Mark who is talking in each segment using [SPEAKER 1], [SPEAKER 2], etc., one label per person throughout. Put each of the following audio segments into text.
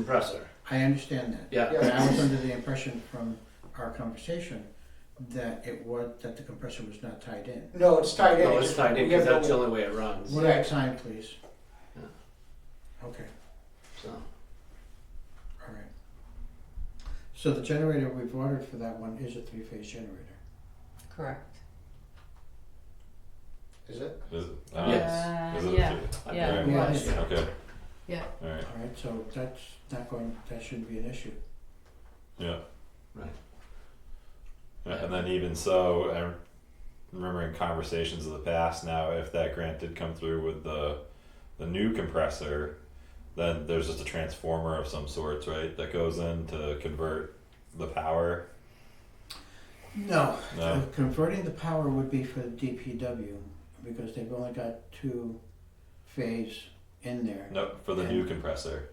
[SPEAKER 1] compressor.
[SPEAKER 2] I understand that.
[SPEAKER 1] Yeah.
[SPEAKER 2] And I was under the impression from our conversation that it was, that the compressor was not tied in.
[SPEAKER 3] No, it's tied in.
[SPEAKER 1] No,
[SPEAKER 3] It
[SPEAKER 1] Oh, it's
[SPEAKER 3] just-
[SPEAKER 1] tied in
[SPEAKER 3] we
[SPEAKER 1] because
[SPEAKER 3] have no
[SPEAKER 1] that's the
[SPEAKER 3] way-
[SPEAKER 1] only way it runs.
[SPEAKER 2] One at a time, please.
[SPEAKER 1] Yeah.
[SPEAKER 2] Okay,
[SPEAKER 1] So
[SPEAKER 2] all right. So the generator we've ordered for that one is a three-phase generator.
[SPEAKER 4] Correct.
[SPEAKER 3] Is it?
[SPEAKER 5] Is it? Uh,
[SPEAKER 4] Yes.
[SPEAKER 5] Is it?
[SPEAKER 4] Yeah. Yeah,
[SPEAKER 5] Right.
[SPEAKER 4] it was.
[SPEAKER 2] Yeah.
[SPEAKER 5] Okay.
[SPEAKER 4] Yeah.
[SPEAKER 5] All right.
[SPEAKER 2] All right, so that's not going, that shouldn't be an issue.
[SPEAKER 5] Yeah.
[SPEAKER 1] Right.
[SPEAKER 5] Yeah, And then even so, I'm remembering conversations of the past now, if that grant did come through with the, the new compressor, then there's just a transformer of some sorts, right, that goes in to convert the power,
[SPEAKER 2] No,
[SPEAKER 1] Uh.
[SPEAKER 5] no?
[SPEAKER 2] Uh, converting the power would be for the DPW because they've only got two phase in there.
[SPEAKER 5] No, for the new compressor,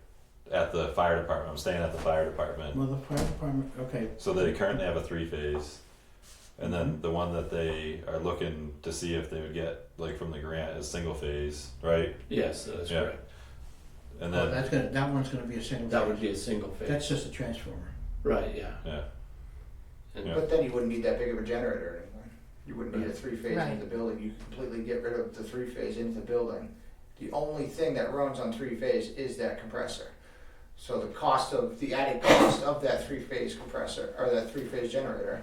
[SPEAKER 5] at the fire department, I'm staying at the fire department,
[SPEAKER 2] Well, the fire department, okay,
[SPEAKER 5] so they currently have a three phase. And then the one that they are looking to see if they would get, like, from the grant is single phase, right?
[SPEAKER 1] yes, that's
[SPEAKER 5] Yeah.
[SPEAKER 1] correct.
[SPEAKER 5] And
[SPEAKER 2] well,
[SPEAKER 5] then,
[SPEAKER 2] that's gonna, that one's gonna be a single phase.
[SPEAKER 1] That would be a single phase.
[SPEAKER 2] That's just a transformer.
[SPEAKER 1] right. Yeah.
[SPEAKER 5] yeah,
[SPEAKER 1] And
[SPEAKER 5] Yeah.
[SPEAKER 3] But then you wouldn't need that big of a generator anymore. You wouldn't need a three phase
[SPEAKER 4] Right.
[SPEAKER 3] into the building. You could completely get rid of the three phase into the building. The only thing that runs on three phase is that compressor. So the cost of the added cost of that three phase compressor or that three phase generator,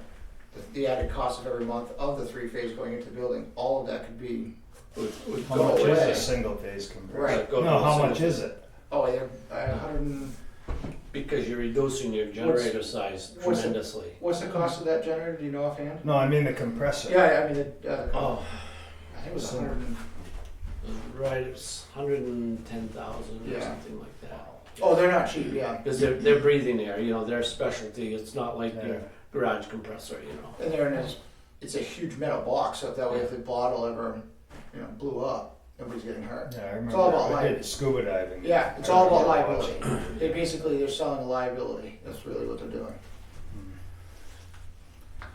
[SPEAKER 3] the, the added cost of every month of the three phase going into the building, all of that could be.
[SPEAKER 1] would, would
[SPEAKER 6] How
[SPEAKER 1] go
[SPEAKER 6] much
[SPEAKER 1] away.
[SPEAKER 6] is a single phase compressor?
[SPEAKER 3] Right.
[SPEAKER 1] Go
[SPEAKER 6] No,
[SPEAKER 1] to
[SPEAKER 6] how
[SPEAKER 1] single
[SPEAKER 6] much is it?
[SPEAKER 3] Oh, yeah, uh, 100.
[SPEAKER 1] Because you're reducing your generator size
[SPEAKER 3] what's the-
[SPEAKER 1] tremendously.
[SPEAKER 3] What's the cost of that generator? Do you know offhand?
[SPEAKER 6] No, I mean the compressor.
[SPEAKER 3] Yeah, I mean, it, uh,
[SPEAKER 1] Oh,
[SPEAKER 3] I think it was
[SPEAKER 6] So-
[SPEAKER 3] 100. and-
[SPEAKER 1] right. It's hundred and ten thousand or
[SPEAKER 3] Yeah.
[SPEAKER 1] something like that.
[SPEAKER 3] Oh, they're not cheap, yeah.
[SPEAKER 1] Because they're they're breathing air. You know, their specialty. It's not like
[SPEAKER 6] Yeah.
[SPEAKER 1] your garage compressor. You know.
[SPEAKER 3] And they're in this, it's a huge metal box, so that way if the bottle ever, you know, blew up, nobody's getting hurt.
[SPEAKER 6] Yeah, I remember.
[SPEAKER 3] all about
[SPEAKER 6] I
[SPEAKER 3] life.
[SPEAKER 6] did scuba diving.
[SPEAKER 3] Yeah, it's
[SPEAKER 6] I
[SPEAKER 3] all about
[SPEAKER 6] remember
[SPEAKER 3] liability. They basically, they're selling the liability. That's really what they're doing.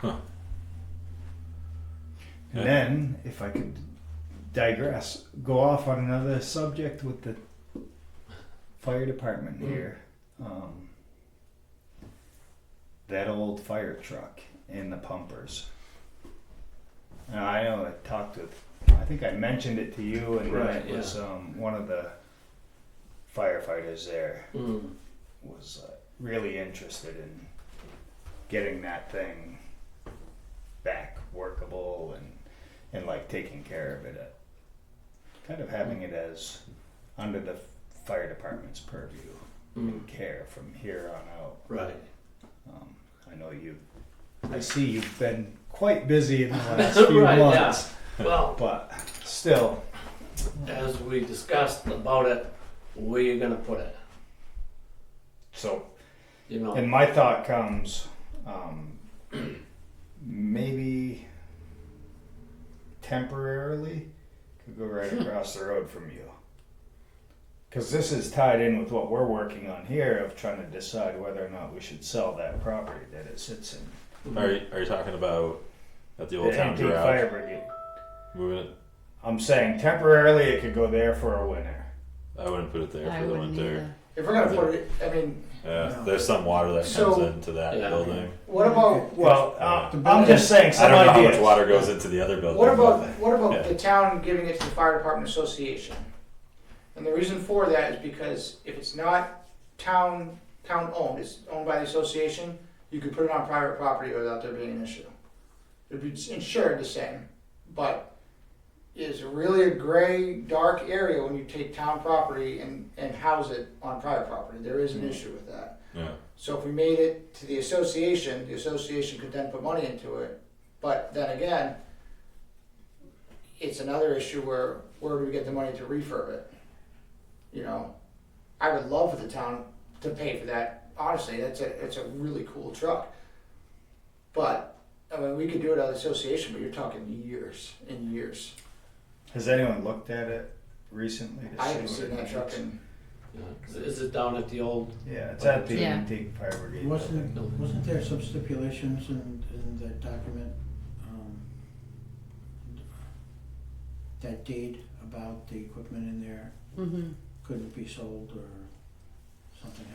[SPEAKER 5] Yeah.
[SPEAKER 6] And then, if I could digress, go off on another subject with the fire department here. Um, that old fire truck and the pumpers. Now, I know I talked with, I think I mentioned it to you, and then
[SPEAKER 1] Right,
[SPEAKER 6] it was um, one of the firefighters there
[SPEAKER 1] Mm.
[SPEAKER 6] was uh, really interested in getting that thing back workable and and like taking care of it, uh, kind of having it as under the fire department's purview
[SPEAKER 1] Mm.
[SPEAKER 6] and care from here on out.
[SPEAKER 1] Right.
[SPEAKER 6] Um, I know you. I see you've been quite busy in the last few
[SPEAKER 1] Right, yeah.
[SPEAKER 6] months,
[SPEAKER 1] Well,
[SPEAKER 6] but still,
[SPEAKER 1] as we discussed about it, where you gonna put it?
[SPEAKER 6] so
[SPEAKER 1] You know.
[SPEAKER 6] And my thought comes, um, maybe temporarily could go right across the road from you. Because this is tied in with what we're working on here of trying to decide whether or not we should sell that property that it sits in.
[SPEAKER 5] are you, are you talking about at the old
[SPEAKER 6] the
[SPEAKER 5] town
[SPEAKER 6] antique
[SPEAKER 5] garage?
[SPEAKER 6] fire brigade.
[SPEAKER 5] Moving it?
[SPEAKER 6] I'm saying temporarily it could go there for a winter.
[SPEAKER 5] I wouldn't put it there
[SPEAKER 4] I
[SPEAKER 5] for the
[SPEAKER 4] wouldn't
[SPEAKER 5] winter.
[SPEAKER 4] either.
[SPEAKER 3] If we're gonna put it, I mean,
[SPEAKER 5] Yeah,
[SPEAKER 2] No.
[SPEAKER 5] there's some water that
[SPEAKER 3] So-
[SPEAKER 5] comes into that
[SPEAKER 1] Yeah.
[SPEAKER 5] building.
[SPEAKER 3] what about,
[SPEAKER 6] Well,
[SPEAKER 5] uh,
[SPEAKER 6] uh, I'm just saying
[SPEAKER 5] I
[SPEAKER 6] some
[SPEAKER 5] don't know how
[SPEAKER 6] ideas.
[SPEAKER 5] much water goes into the other building.
[SPEAKER 3] what about,
[SPEAKER 5] but-
[SPEAKER 3] what
[SPEAKER 5] Yeah.
[SPEAKER 3] about the town giving it to the fire department association? And the reason for that is because if it's not town, town owned, it's owned by the association, you could put it on private property without there being an issue. It'd be insured the same, but it's really a gray, dark area when you take town property and, and house it on private property. There is
[SPEAKER 5] Hmm.
[SPEAKER 3] an issue with that.
[SPEAKER 5] Yeah.
[SPEAKER 3] So if we made it to the association, the association could then put money into it. But then again, it's another issue where where do we get the money to refurb it? You know, I would love for the town to pay for that. Honestly, that's a it's a really cool truck. But I mean, we could do it at the association, but you're talking years and years.
[SPEAKER 6] Has anyone looked at it recently? to
[SPEAKER 3] I
[SPEAKER 6] see
[SPEAKER 3] haven't
[SPEAKER 6] what
[SPEAKER 3] seen
[SPEAKER 6] it
[SPEAKER 3] that truck
[SPEAKER 6] needs?
[SPEAKER 3] in.
[SPEAKER 1] Yeah, 'cause Is it down at the old?
[SPEAKER 6] Yeah, it's at the
[SPEAKER 4] Yeah.
[SPEAKER 6] antique fire brigade. building.
[SPEAKER 2] Wasn't, wasn't there some stipulations in, in the document, um, that deed about the equipment in there
[SPEAKER 4] Mhm.
[SPEAKER 2] couldn't be sold or something